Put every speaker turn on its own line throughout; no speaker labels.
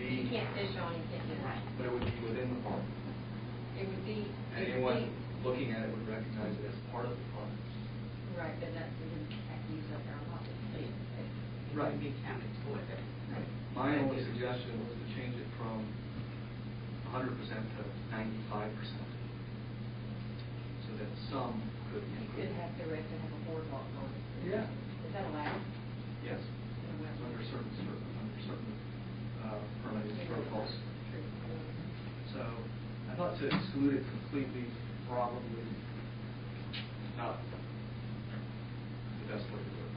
is your intended right.
but it would be within the park.
It would be. it would
Anyone
be-
looking at it would recognize it as part of the park.
Right, but that's the impact use of our lot.
It
Right.
would be counted toward that.
My only suggestion was to change it from hundred percent to ninety-five percent. So that some could
You
include.
could have the rest and have a boardwalk on it.
Yeah.
Is that allowed?
Yes, under certain, certain, under certain, uh, permitted protocols. So I thought to exclude it completely probably not the best way to do it.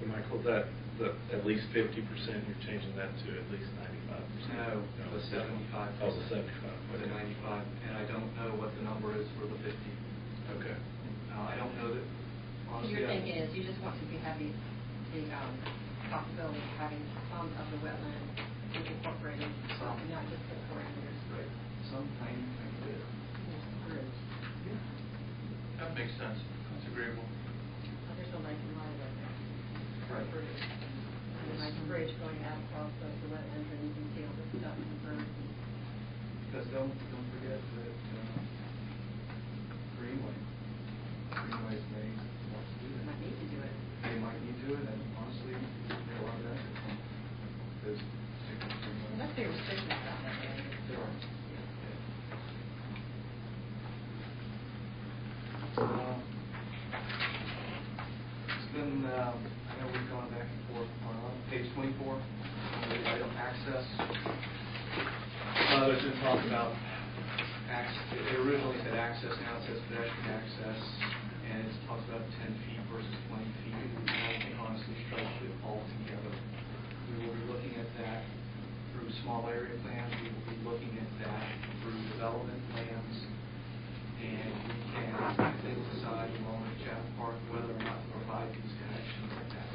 So Michael, that, the, at least fifty percent, you're changing that to at least ninety-five percent?
No, the seventy-five.
Oh, the seventy-five.
Or the
okay.
ninety-five, and I don't know what the number is for the fifty.
Okay.
Uh, I don't know that, honestly.
Your
I-
thinking is you just want to be having the, um, possibility of having some of the wetland incorporated,
Some.
not just the parameters.
Right, some tiny thing there.
That makes sense. That's agreeable.
There's no Lincoln Line right there.
Right.
And like a bridge going out across the the wetlands and you can see all the stuff and birds.
Because don't, don't forget that, uh, Greenway, Greenway's may want to do
You
that.
might need to do it.
They might need to, and honestly, there are a lot of that from those particular Greenway.
Unless there are restrictions about that area.
There are. Um, It's been, um, I know we've gone back and forth, on page 24, on the item access. Uh, There's been talk about, acc- it originally said access, now it says pedestrian access, and it talks about 10 feet versus 20 feet. And I think honestly, strike it all together. We will be looking at that through small area plans, we will be looking at that through development plans. And we can, I think, decide along with Chatham Park whether or not to provide these connections like that.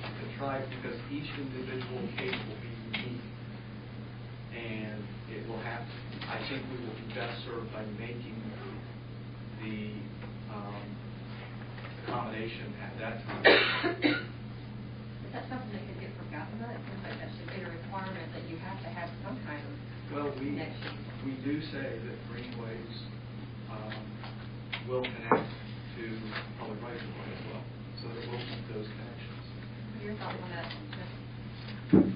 To try, because each individual case will be unique. And it will have, I think we will be best served by making the um, accommodation at that time.
Is that something that could get from Gothenburg? It seems like that should be a requirement that you have to have some kind of
Well, we,
connection.
we do say that greenways um, will connect to public rights of way as well, so there will be those connections.
What are your thoughts on that?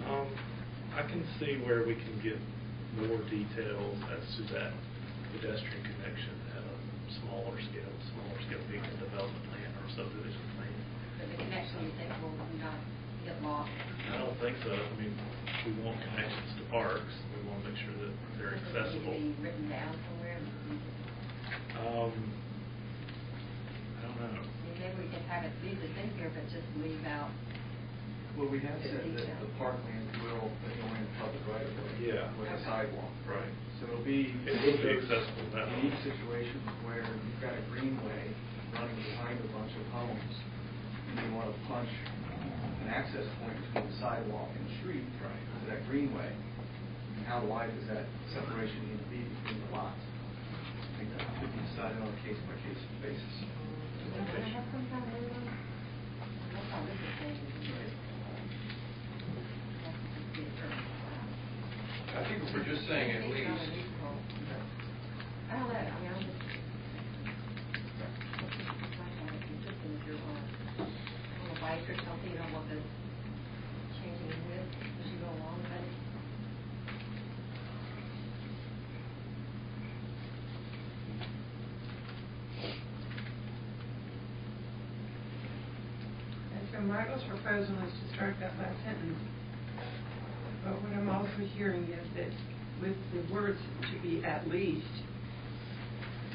Um, I can see where we can get more details as to that pedestrian connection at a smaller scale, smaller scale being a development plan or subdivision plan.
But the connection you think will not get lost?
I don't think so. I mean, we want connections to parks. We want to make sure that they're
Does it need to
accessible.
be written down somewhere?
Um, I don't know.
Maybe we could have it, leave it in here, but just leave out
Well, we have said that the parkland will join public right of way.
Yeah.
With a sidewalk.
Right.
So it'll be.
It will be accessible now.
Unique situations where you've got a greenway running behind a bunch of homes, and you want to punch an access point between the sidewalk and the street.
Right.
To that greenway, and how wide does that separation need to be between the lots? I think that could be decided on a case-by-case basis.
Don't I have some kind of label? That's all this is saying. I
I think if we're just saying at least,
I don't know, I mean, I'm just. Consistent if you're on a, on a bike or something, you don't want this changing width as you go along, but.
And so Michael's proposal is to strike that last sentence. But what I'm also hearing is that with the words to be at least,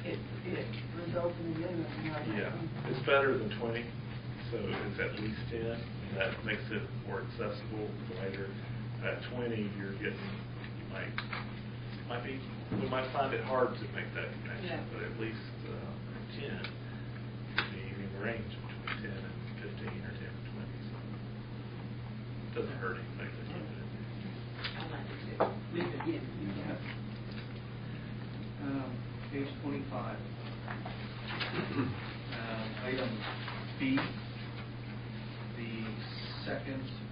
it, it results in the end of the.
Yeah, it's better than twenty, so it's at least ten, and that makes it more accessible later. At twenty, you're getting, you might, might be, we might find it hard to make that
Yeah.
connection, but at least uh, ten, could be in the range between ten and fifteen or ten and twenty, so it doesn't hurt anything. to keep it in there.
I like it too. Leave it in.
Um, Page 25. Um, Item B, the second